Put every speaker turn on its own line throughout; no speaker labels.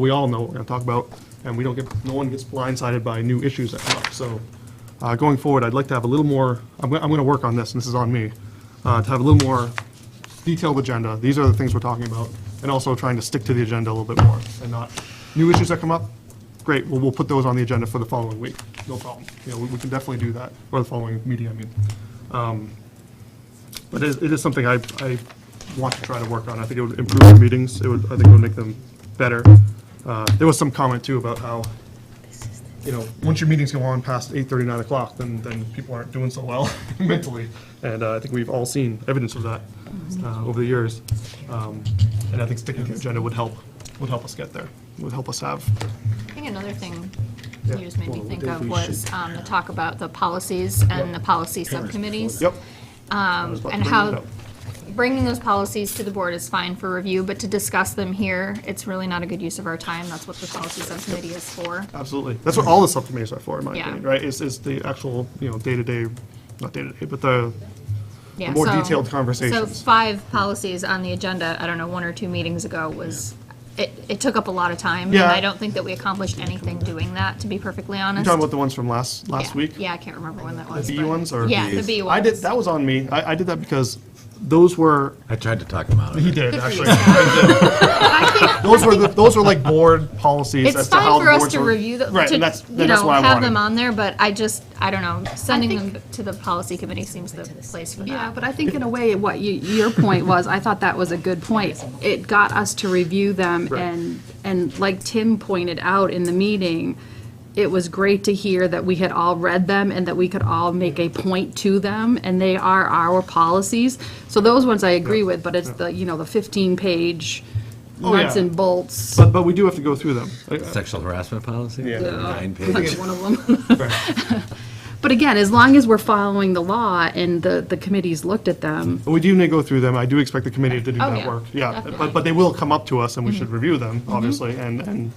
we all know what we're going to talk about, and we don't get, no one gets blindsided by new issues that come up. So uh, going forward, I'd like to have a little more, I'm going to work on this, and this is on me, uh, to have a little more detailed agenda. These are the things we're talking about, and also trying to stick to the agenda a little bit more, and not, new issues that come up, great, well, we'll put those on the agenda for the following week, no problem. You know, we we can definitely do that, or the following meeting, I mean. Um, But it is- it is something I, I want to try to work on. I think it would improve the meetings. It would, I think it would make them better. Uh, There was some comment too about how, you know, once your meetings go on past 8:30, 9 o'clock, then, then people aren't doing so well mentally. And uh, I think we've all seen evidence of that uh, over the years. Um, And I think sticking to the agenda would help, would help us get there, would help us have.
I think another thing
Yeah.
you just made me
Well,
think
then
of
we
was
should-
um, the talk about the policies and the policy subcommittees.
Yep.
um, And how, bringing those policies to the board is fine for review, but to discuss them here, it's really not a good use of our time. That's what the policy subcommittee is for.
Absolutely. That's what all the subcommittees are for, in my
Yeah.
opinion, right? Is, is the actual, you know, day-to-day, not day-to-day, but the,
Yeah,
more
so-
detailed
So
conversations.
five policies on the agenda, I don't know, one or two meetings ago was, it, it took up a lot of time.
Yeah.
And I don't think that we accomplished anything doing that, to be perfectly
You
honest.
talking about the ones from last, last
Yeah.
week?
Yeah, I can't remember when that
The
was.
B
but-
ones or?
Yeah, the B ones.
I did, that was on me. I, I did that because those were,
I tried to talk him out of
he
it.
did,
Good for you,
actually.
Scott.
Those were, the- those were like board policies
It's
as to how
fine
the
for us
boards
to
were.
review them,
Right,
to,
and that's,
you
that's
know,
why I
have them
wanted.
on there, but I just, I don't know, sending them to the policy committee seems the place for
Yeah,
that.
but I think in a way, what you, your point was, I thought that was a good point. It got us to review them and, and like Tim pointed out in the meeting, it was great to hear that we had all read them and that we could all make a point to them, and they are our policies. So those ones I agree with, but it's the, you know, the fifteen-page
Oh, yeah.
nuts and bolts.
But, but we do have to go through them. I-
Sexual harassment policy?
Yeah.
Nine pages.
One of them.
I- right.
But again, as long as we're following the law and the, the committees looked at them,
But we do need to go through them. I do expect the committee to do
Oh,
that
yeah. Mm-hmm.
work. Yeah, but, but they will come up to us and we should review them, obviously, and, and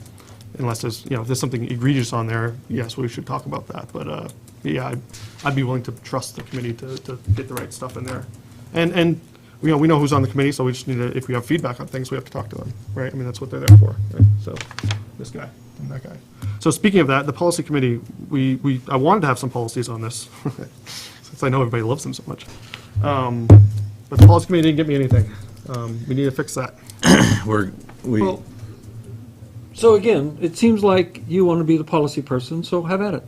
unless there's, you know, if there's something egregious on there, yes, we should talk about that. But, uh, yeah, I'd, I'd be willing to trust the committee to, to get the right stuff in there. And, and, you know, we know who's on the committee, so we just need to, if we have feedback on things, we have to talk to them, right? I mean, that's what they're there for, right? So, this guy and that guy. So speaking of that, the policy committee, we, we, I wanted to have some policies on this, since I know everybody loves them so much. But the policy committee didn't get me anything. Um, We need to fix that.
We're, we,
Well, So again, it seems like you want to be the policy person, so have at it.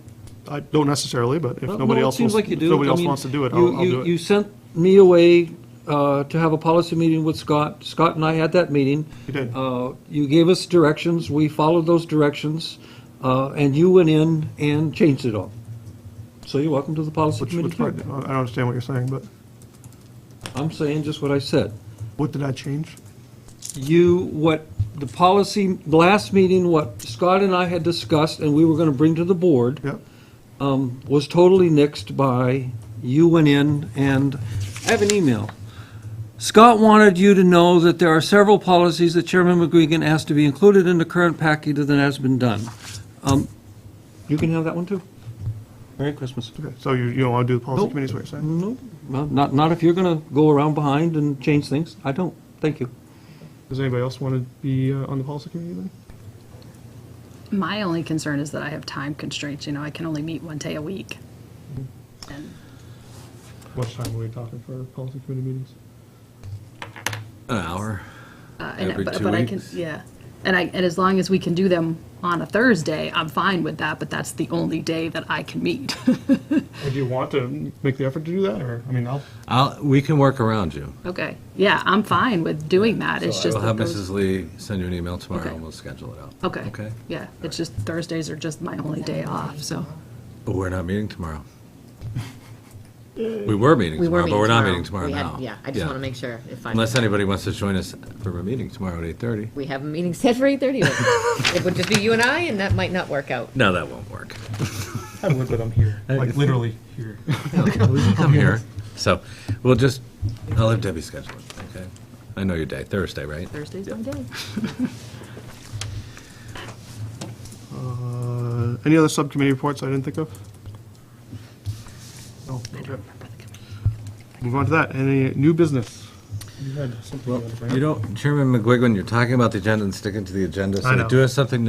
I don't necessarily, but if
Well,
nobody
no,
else,
It seems
wants-
like you
if
do.
nobody
I
else
mean,
wants to do it,
you-
I'll I'll
you-
do
You
it.
sent me away uh, to have a policy meeting with Scott. Scott and I had that meeting.
You did.
Uh, You gave us directions, we followed those directions, uh, and you went in and changed it all. So you're welcome to the policy
Which,
committee.
which part, I
too.
don't understand what you're saying, but
I'm saying just what I said.
what did I change?
you, what the policy, the last meeting, what Scott and I had discussed and we were going to bring to the board
Yep.
um, was totally nixed by, you went in and, I have an email. Scott wanted you to know that there are several policies that Chairman McGuigan asked to be included in the current package that has been done. Um, You can have that one too. Merry Christmas.
Okay, So you, you don't want to do the policy
Nope.
committee is what you're saying?
No, well, not, not if you're going to go around behind and change things. I don't. Thank you.
Does anybody else want to be uh, on the policy committee then?
My only concern is that I have time constraints, you know, I can only meet one day a week. And
What time are we talking for policy committee meetings?
an hour.
uh, and-
Every
but-
two
but I can-
weeks?
Yeah, and I, and as long as we can do them on a Thursday, I'm fine with that, but that's the only day that I can meet.
Or do you want to make the effort to do that, or, I mean, I'll,
I'll, we can work around you.
Okay, yeah, I'm fine with doing that, it's
So I
just
will have
that those.
Mrs. Lee send you an email tomorrow
Okay.
and we'll schedule it out.
Okay,
Okay.
yeah, it's just Thursdays are just my only day off, so.
But we're not meeting tomorrow. We were meeting
We
tomorrow,
were meeting
but we're not meeting tomorrow
We had-
now.
Yeah, I just want to make sure if I'm,
Unless anybody wants to join us for a meeting tomorrow at 8:30.
we have a meeting set for 8:30. but It would just be you and I, and that might not work out.
No, that won't work.
I would, but I'm here, like literally here.
I'm here. So we'll just, I'll have Debbie schedule it, okay? I know your day, Thursday, right?
Thursday's my day.
Uh, Any other subcommittee reports I didn't think of? No, okay. Move on to that. Any new business? Any you had something you
Well,
wanted to bring up.
you don't, Chairman McGuigan, you're talking about the agenda and sticking to the agenda,
I
so
know.
do us something